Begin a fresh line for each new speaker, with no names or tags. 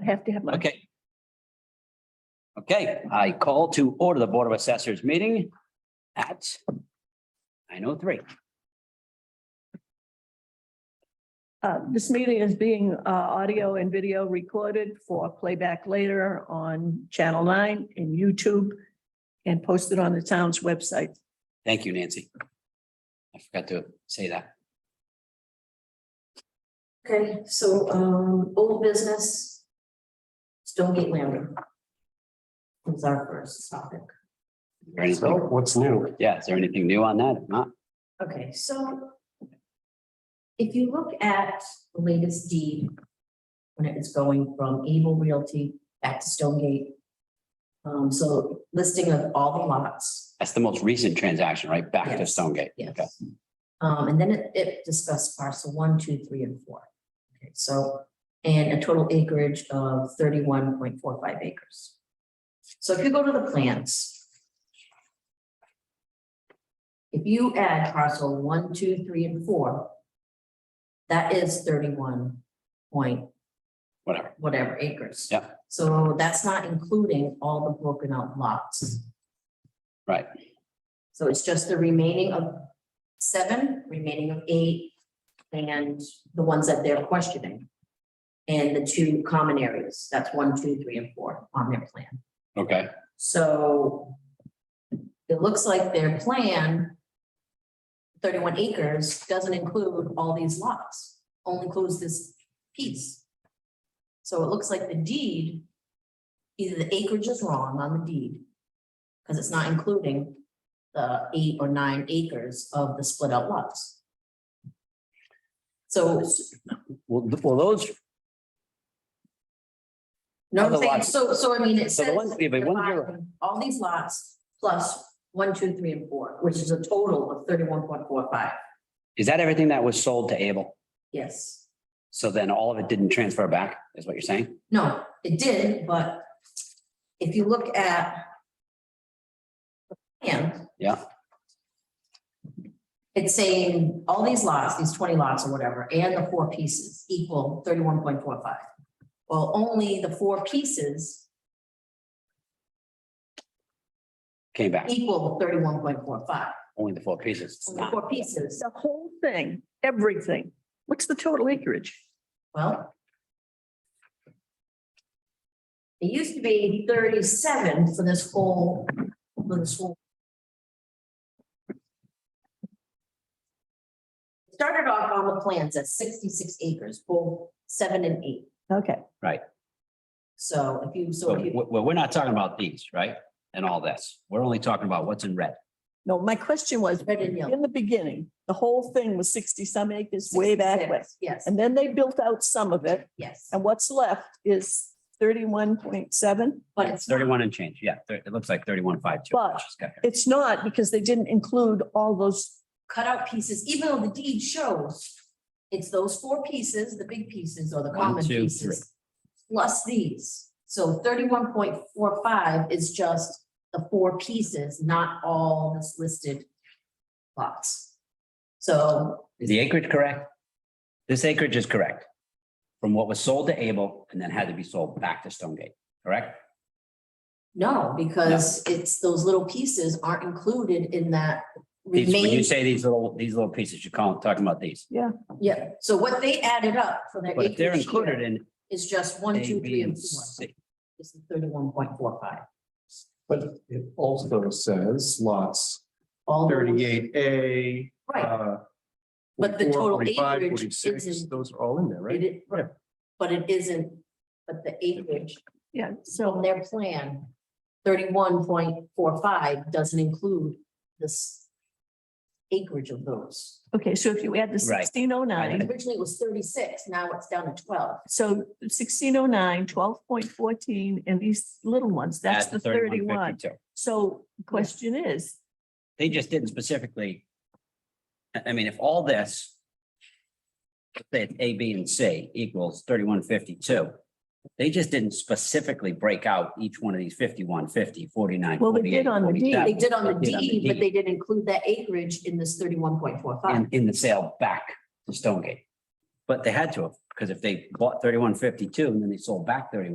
I have to have my.
Okay. Okay, I call to order the Board of Assessors meeting at nine oh three.
Uh, This meeting is being uh, audio and video recorded for playback later on Channel 9 and YouTube and posted on the town's website.
Thank you, Nancy. I forgot to say that.
Okay, so, um, old business. Stonegate Landing. Was our first topic.
Is there anything-
So what's new?
Yeah, is there anything new on that? If not,
Okay, so. If you look at the latest deed. When it's going from Able Realty back to Stonegate. Um, so listing of all the lots.
that's the most recent transaction, right? Back to
Yes.
Stonegate. Okay.
Yes. Um, and then it, it discussed parcel one, two, three, and four. Okay, so, and a total acreage of thirty-one point four five acres. So if you go to the plans. If you add parcel one, two, three, and four. That is thirty-one point
Whatever.
whatever acres.
Yeah.
So that's not including all the broken out lots.
Right.
So it's just the remaining of seven, remaining of eight, and the ones that they're questioning. And the two common areas, that's one, two, three, and four on their plan.
Okay.
So it looks like their plan, thirty-one acres, doesn't include all these lots, only includes this piece. So it looks like the deed, either the acreage is wrong on the deed, because it's not including the eight or nine acres of the split out lots. So,
Well, th- well, those,
no, I'm saying,
Otherwise-
so, so I mean, it
So the
says.
ones- yeah, but ones you're-
All these lots plus one, two, three, and four, which is a total of thirty-one point four five,
is that everything that was sold to Able?
yes.
So then all of it didn't transfer back, is what you're saying?
No, it did, but if you look at the plan.
Yeah.
It's saying all these lots, these twenty lots or whatever, and the four pieces equal thirty-one point four five. Well, only the four pieces
Came back,
equal thirty-one point four five,
only the four pieces.
the four pieces.
The whole thing, everything. What's the total acreage?
Well. It used to be thirty-seven for this whole, for this whole. Started off on the plans at sixty-six acres, both seven and eight.
Okay,
So if you, so
So,
if you,
w- well, we're not talking about these, right? And all this. We're only talking about what's in red.
no, my question was,
Red and yellow.
in the beginning, the whole thing was sixty some acres way back when.
66, Yes,
And then they built out some of it
yes,
and what's left is thirty-one point seven.
but it's,
Thirty-one and change, yeah, thir- it looks like thirty-one, five, two.
But- It's not because they didn't include all those
cut out pieces, even though the deed shows. It's those four pieces, the big pieces or the
One,
common
two,
pieces. Plus these, so thirty-one point four five is just the four pieces, not all that's listed lots. So,
Is the acreage correct? This acreage is correct. From what was sold to Able and then had to be sold back to Stonegate, correct?
no, because it's, those little pieces aren't included in that
These, when you
remain.
say these little, these little pieces, you're calling, talking about these.
Yeah, so what they added up for their
But if they're
acreage
included
here
in
is just one,
A,
two,
B,
three,
and
and four.
C.
It's the thirty-one point four five.
But it also says lots
All those-
thirty-eight A. uh,
Right, But the total acreage isn't-
Those are all in there,
It
right?
is,
Yeah.
but it isn't, but the acreage
Yeah,
from
so
their plan, thirty-one point four five doesn't include this acreage of those.
okay, so if you add the
Right.
sixteen oh nine,
Originally it was thirty-six, now it's down to twelve.
so 1609, 12.14, and these little ones, that's
at
the
31,
thirty-one.
52.
So question is,
They just didn't specifically. I, I mean, if all this. let's Say it's A, B, and C equals thirty-one fifty-two. They just didn't specifically break out each one of these 51, 50, 49, 48, 47.
Well, they did on the deed.
They did on the
They did on the
deed, but
deed.
they didn't include that acreage in this thirty-one point four five.
in, in the sale back to Stonegate. But they had to have, because if they bought thirty-one fifty-two and then they sold back thirty-one